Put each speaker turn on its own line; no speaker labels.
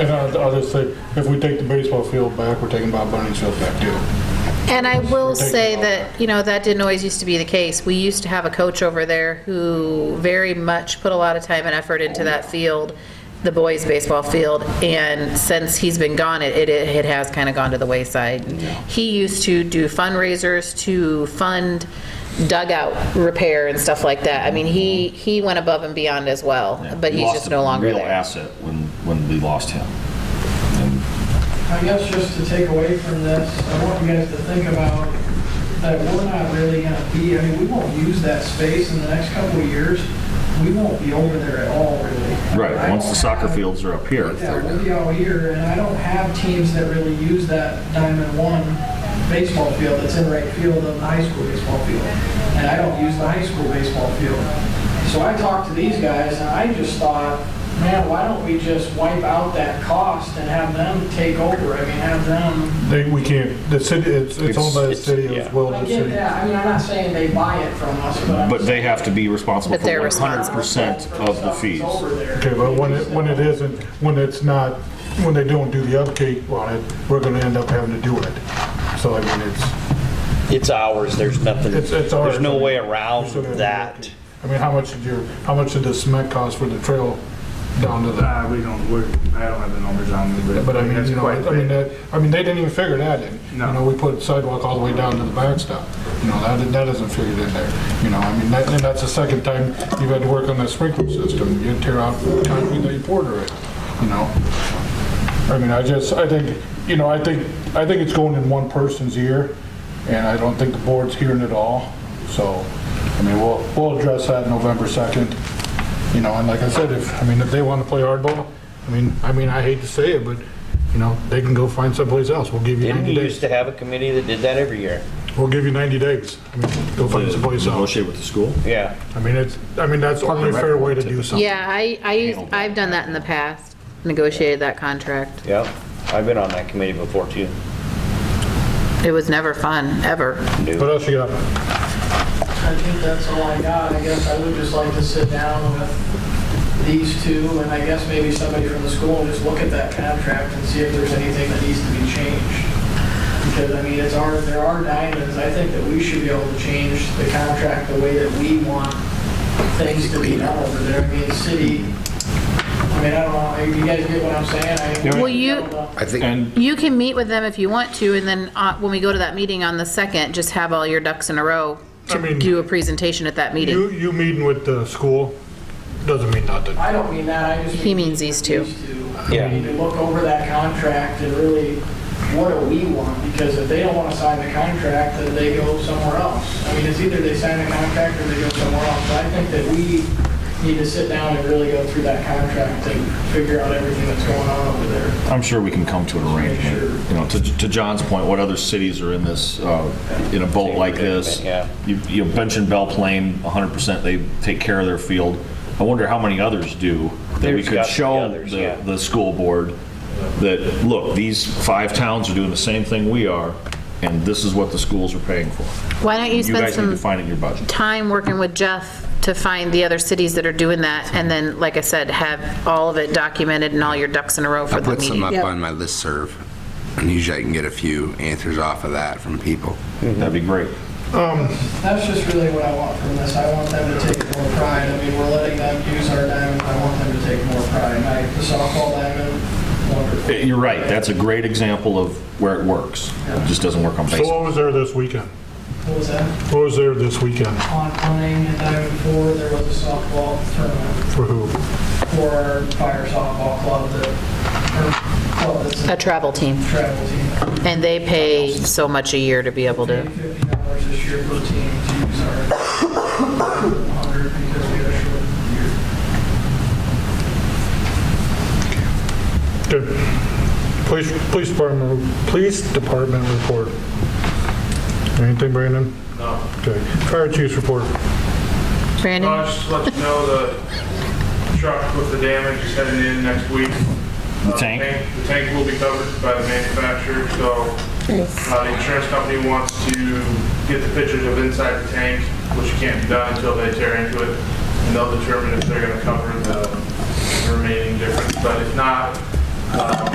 And I I just say, if we take the baseball field back, we're taking Bob Bunny's field back too.
And I will
Taking
say
all
that, you know, that didn't always used to be the case. We used to have a coach over there who very much put a lot of time and effort into that field, the boys' baseball field, and since he's been gone, it, it- it has kind of gone to the wayside. He used to do fundraisers to fund dugout repair and stuff like that. I mean, he, he went above and beyond as well, but he's
We Mm-hmm. lost
just
a
no longer
Real
there.
asset when, when we lost him.
I guess just to take away from this, I want you guys to think about that we're not really gonna be, I mean, we won't use that space in the next couple of years. We won't be over there at all, really.
Right, once the
I
soccer
don't have-
fields are up here.
Yeah, we'll be out here, and I don't have teams that really use that Diamond One baseball field that's in right field of the high school baseball field. And I don't use the high school baseball field. So I talked to these guys, and I just thought, man, why don't we just wipe out that cost and have them take over? I mean, have them
They, we can't, the city, it's, it's owned by the
It's-
city
it's-
as well
I
as the
get
city.
that, I mean, I'm not saying they buy it from us, but.
But they have to be responsible
But
for
they're
100% of the fees.
Okay, but when it, when it isn't, when it's not, when they don't do the upkeep on it, we're gonna end up having to do it. So I mean, it's,
It's ours, there's nothing,
It's- it's ours.
there's no way
we're
around
still gonna do the
that.
upkeep. I mean, how much did your, how much did the cement cost for the trail down to the,
Uh, we don't, we're, I don't have the numbers on me, but.
but I mean,
that's
you know,
quite
I
a
mean,
bit.
that, I mean, they didn't even figure that in.
No.
You know, we put sidewalk all the way down to the backstop, you know, that, that isn't figured in there, you know, I mean, that, and that's the second time you've had to work on that sprinkler system, you tear out concrete that you poured already, you know? I mean, I just, I think, you know, I think, I think it's going in one person's ear, and I don't think the board's hearing it all. So, I mean, we'll, we'll address that November 2nd, you know, and like I said, if, I mean, if they want to play hardball, I mean, I mean, I hate to say it, but, you know, they can go find someplace else. We'll give you
Didn't we
90 days.
used to have a committee that did that every year?
We'll give you 90 days. I mean, go find someplace else.
Negotiate with the school?
Yeah.
I mean, it's, I mean, that's the only fair way to do something.
Yeah, I, I, used- I've done that in the past, negotiated that contract.
Yep, I've been on that committee before too.
It was never fun, ever.
What else you got?
I think that's all I got, I guess I would just like to sit down with these two, and I guess maybe somebody from the school, and just look at that contract and see if there's anything that needs to be changed. Because, I mean, it's our, there are diamonds, I think that we should be able to change the contract the way that we want things to be done over there, I mean, city, I mean, I don't know, you guys get what I'm saying? I-
Well, you-
I think,
And
You can meet with them if you want to, and then uh, when we go to that meeting on the 2nd, just have all your ducks in a row
I
to
mean,
do a presentation at that meeting.
You, you meeting with the school doesn't mean nothing.
I don't mean that, I just.
He means these two.
These two.
Yeah.
We need to look over that contract and really, what do we want? Because if they don't want to sign the contract, then they go somewhere else. I mean, it's either they sign the contract or they go somewhere else. But I think that we need to sit down and really go through that contract and figure out everything that's going on over there.
I'm sure we can come to an arrangement. You know, to, to John's point, what other cities are in this, uh, in a boat like this?
Yeah.
You, you mentioned Belle Plaine, 100%, they take care of their field. I wonder how many others do that we
There's got
could
to be
show
others, yeah.
the, the school board that, look, these five towns are doing the same thing we are, and this is what the schools are paying for.
Why don't you
You
spend
guys need to
some
find it in your budget.
time working with Jeff to find the other cities that are doing that, and then, like I said, have all of it documented and all your ducks in a row
I
for the
put some
meeting.
up on my listserv, and usually I can get a few answers off of that from people.
Mm-hmm.
That'd be great.
That's just really what I want from this. I want them to take more pride. I mean, we're letting them use our diamond. I want them to take more pride. My, the softball diamond, wonderful.
Eh, You're right, that's a great example of where it works. It just doesn't work on
So
baseball.
what was there this weekend?
What was that?
What was there this weekend?
On playing at Diamond Four, there was a softball tournament.
For who?
for our fire softball club that, or club that's
A
a
travel team,
travel team.
and they pay so much a year to be able
Paid
to,
fifty dollars this year per team to use our hundred because we had a short year.
Good. Police, police department, police department report. Anything, Brandon?
No.
Okay. Fire chief's report.
Brandon?
I'll just let you know the truck with the damage is heading in next week. The
tank?
The tank will be covered by the manufacturer, so uh, the insurance company wants to get the pictures of inside the tank, which can't be done until they tear into it, and they'll determine if they're gonna cover the remaining difference. But if not, Um,